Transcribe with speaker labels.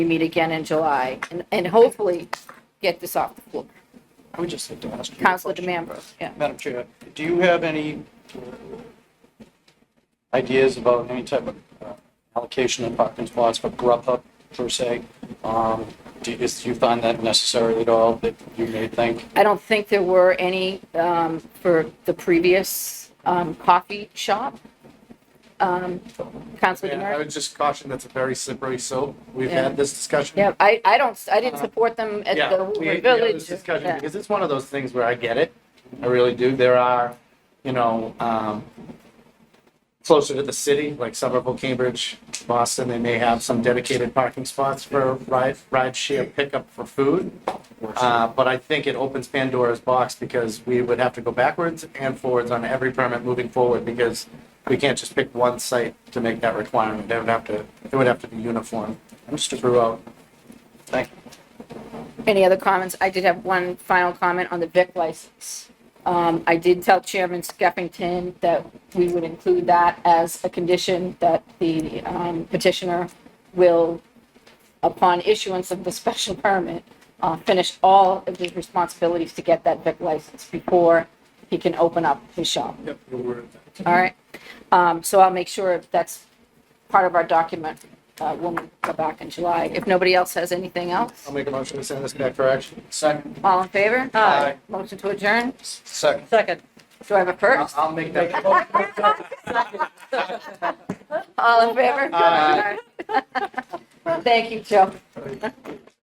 Speaker 1: we meet again in July and, and hopefully get this off the floor.
Speaker 2: I would just like to ask you. a
Speaker 1: Counselor
Speaker 2: question.
Speaker 1: DeMambro, yeah.
Speaker 2: Madam Chair, do you have any ideas about any type of uh, allocation of parking spots for Grubhub per se? Um, Do is- do you find that necessary at all, that you may think?
Speaker 1: I don't think there were any um, for the previous um, coffee shop. Um, Counselor
Speaker 3: Yeah, I
Speaker 1: DeMambro?
Speaker 3: would just caution that's a very slippery slope. We've
Speaker 1: Yeah.
Speaker 3: had this discussion.
Speaker 1: Yeah, I, I don't, I didn't support them at
Speaker 3: Uh-huh. Yeah,
Speaker 1: the
Speaker 3: we- we
Speaker 1: Woodward
Speaker 3: had
Speaker 1: Village.
Speaker 3: this discussion
Speaker 1: Yeah.
Speaker 3: because it's one of those things where I get it. I really do. There are, you know, um, closer to the city, like Somerville, Cambridge, Boston, they may have some dedicated parking spots for ride, ride share pickup for food. Uh, but I think it opens Pandora's box because we would have to go backwards and forwards on every permit moving forward because we can't just pick one site to make that requirement. They would have to, it would have to be uniform throughout.
Speaker 2: Thank you.
Speaker 1: Any other comments? I did have one final comment on the Vic license. Um, I did tell Chairman Skeffington that we would include that as a condition that the um, petitioner will, upon issuance of the special permit, uh, finish all of his responsibilities to get that Vic license before he can open up his shop.
Speaker 3: Yep, you were.
Speaker 1: All right? Um, so I'll make sure that's part of our document, uh, when we go back in July. If nobody else has anything else?
Speaker 3: I'll make a motion to send this back for action.
Speaker 2: Second.
Speaker 1: All in favor?
Speaker 2: Aye.
Speaker 1: Motion to adjourn?
Speaker 2: Second.
Speaker 1: Second. Do I have a first?
Speaker 3: I'll make that.
Speaker 1: All in favor?
Speaker 3: Aye.
Speaker 1: Thank you, Joe.